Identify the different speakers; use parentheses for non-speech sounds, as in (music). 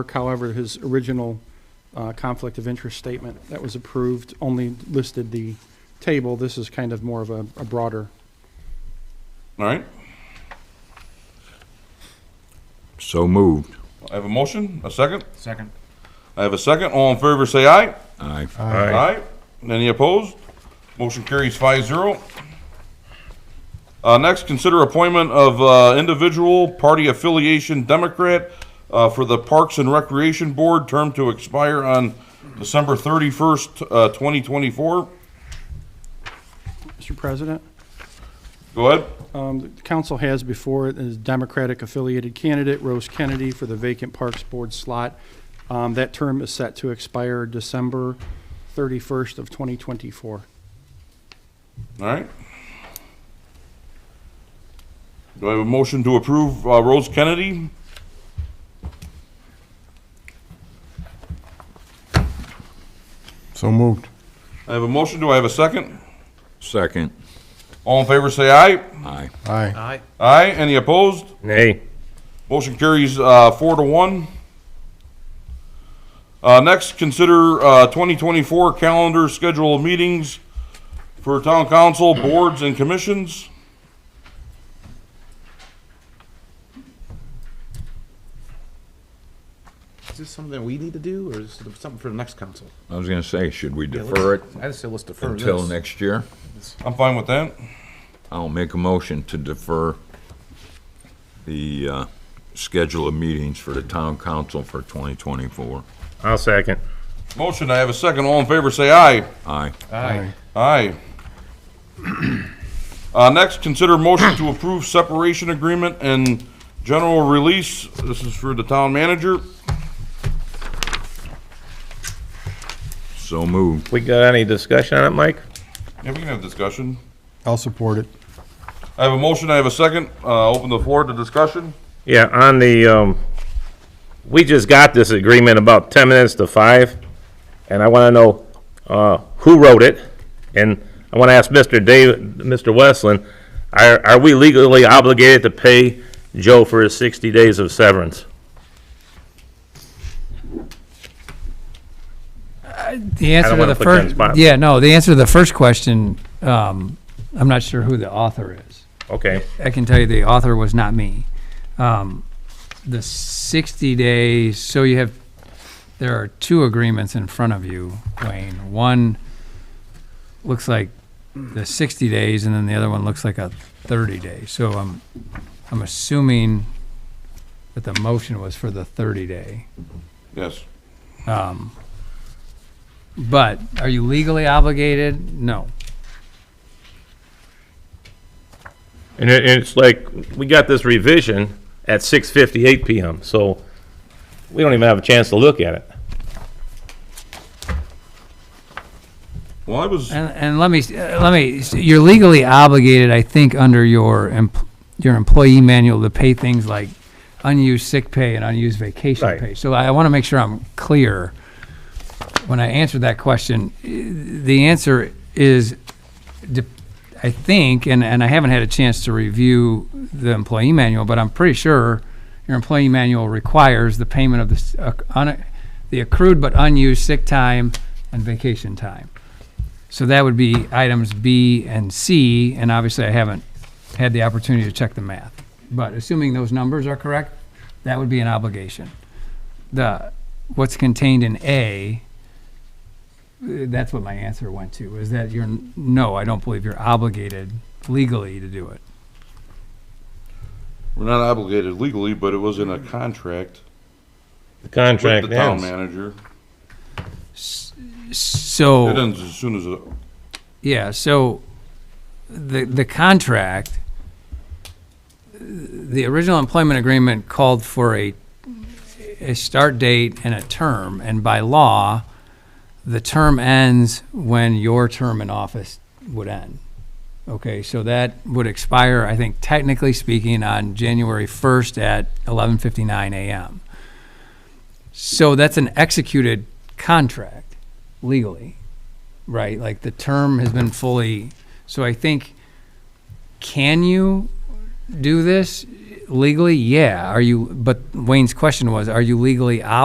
Speaker 1: However, his original uh, conflict of interest statement that was approved only listed the table. This is kind of more of a a broader.
Speaker 2: All right,
Speaker 3: So moved.
Speaker 2: I have a motion, a second.
Speaker 4: Second.
Speaker 2: I have a second. All in favor, say aye.
Speaker 3: Aye.
Speaker 2: Aye. Any opposed? Motion carries five zero. Uh, next, consider appointment of, uh, individual party affiliation Democrat, uh, for the Parks and Recreation Board, term to expire on December thirty-first, uh, twenty twenty-four.
Speaker 1: Mr. President?
Speaker 2: Go ahead.
Speaker 1: Um, The Council has before it is Democratic-affiliated candidate Rose Kennedy for the vacant Parks Board slot. Um, That term is set to expire December 31st of 2024.
Speaker 2: All right. Do I have a motion to approve, uh, Rose Kennedy?
Speaker 4: So moved.
Speaker 2: I have a motion. Do I have a second?
Speaker 3: Second.
Speaker 2: All in favor, say aye.
Speaker 3: Aye.
Speaker 4: Aye.
Speaker 2: Aye. Any opposed?
Speaker 5: Nay.
Speaker 2: Motion carries uh, four to one. Uh, Next, consider uh, 2024 calendar schedule of meetings for town council, boards, and commissions.
Speaker 6: Is this something we need to do, or is this something for the next council?
Speaker 3: I was gonna say, should we
Speaker 6: Yeah,
Speaker 3: defer it
Speaker 6: let's- I just say let's defer this.
Speaker 3: until next year?
Speaker 2: I'm fine with that.
Speaker 3: I'll make a motion to defer the, uh, schedule of meetings for the town council for 2024.
Speaker 5: I'll second.
Speaker 2: Motion, I have a second. All in favor, say aye.
Speaker 3: Aye.
Speaker 6: Aye.
Speaker 2: Aye. (clears throat) Uh, Next, consider motion to approve separation agreement and general release. This is for the town manager.
Speaker 3: So moved.
Speaker 5: We got any discussion on it, Mike?
Speaker 2: Yeah, we can have discussion.
Speaker 4: I'll support it.
Speaker 2: I have a motion, I have a second. Uh, Open the floor to discussion.
Speaker 5: Yeah, on the, um, we just got this agreement about ten minutes to five, and I wanna know, uh, who wrote it? And I wanna ask Mr. Dave, Mr. Westland, are, are we legally obligated to pay Joe for his sixty days of severance?
Speaker 7: The answer to
Speaker 5: wanna
Speaker 7: the
Speaker 5: put you on the
Speaker 7: first,
Speaker 5: spot.
Speaker 7: yeah, no, the answer to the first question, um, I'm not sure who the author is.
Speaker 5: Okay,
Speaker 7: I can tell you the author was not me. Um, the sixty days, so you have, there are two agreements in front of you, Wayne. One looks like the sixty days and then the other one looks like a thirty day. So I'm, I'm assuming that the motion was for the thirty day.
Speaker 2: Yes.
Speaker 7: But are you legally obligated? No.
Speaker 5: and it, and it's like, we got this revision at six fifty-eight PM, so we don't even have a chance to look at it.
Speaker 2: Well, I was,
Speaker 7: And, and let me, uh, let me, you're legally obligated, I think, under your, empl- your employee manual to pay things like unused sick pay and unused vacation
Speaker 5: Right.
Speaker 7: pay. So I want to make sure I'm clear. When I answer that question, i- the answer is, de- I think, and, and I haven't had a chance to review the employee manual, but I'm pretty sure your employee manual requires the payment of the, s- acc- un- the accrued but unused sick time and vacation time. So that would be items B and C, and obviously I haven't had the opportunity to check the math. But assuming those numbers are correct, that would be an obligation. The, what's contained in A, uh, that's what my answer went to, is that you're, n- no, I don't believe you're obligated legally to do it.
Speaker 2: we're not obligated legally, but it was in a contract
Speaker 5: The
Speaker 2: with the
Speaker 5: contract
Speaker 2: town
Speaker 5: ends.
Speaker 2: manager.
Speaker 7: So.
Speaker 2: It ends as soon as, it-
Speaker 7: Yeah, so the, the contract, the original employment agreement called for a, a start date and a term, and by law, the term ends when your term in office would end. Okay, so that would expire, I think technically speaking, on January 1st at 11:59 a.m. So that's an executed contract legally right? Like the term has been fully. So I think, can you do this legally? Yeah. Are you? But Wayne's question was, are you legally obligated?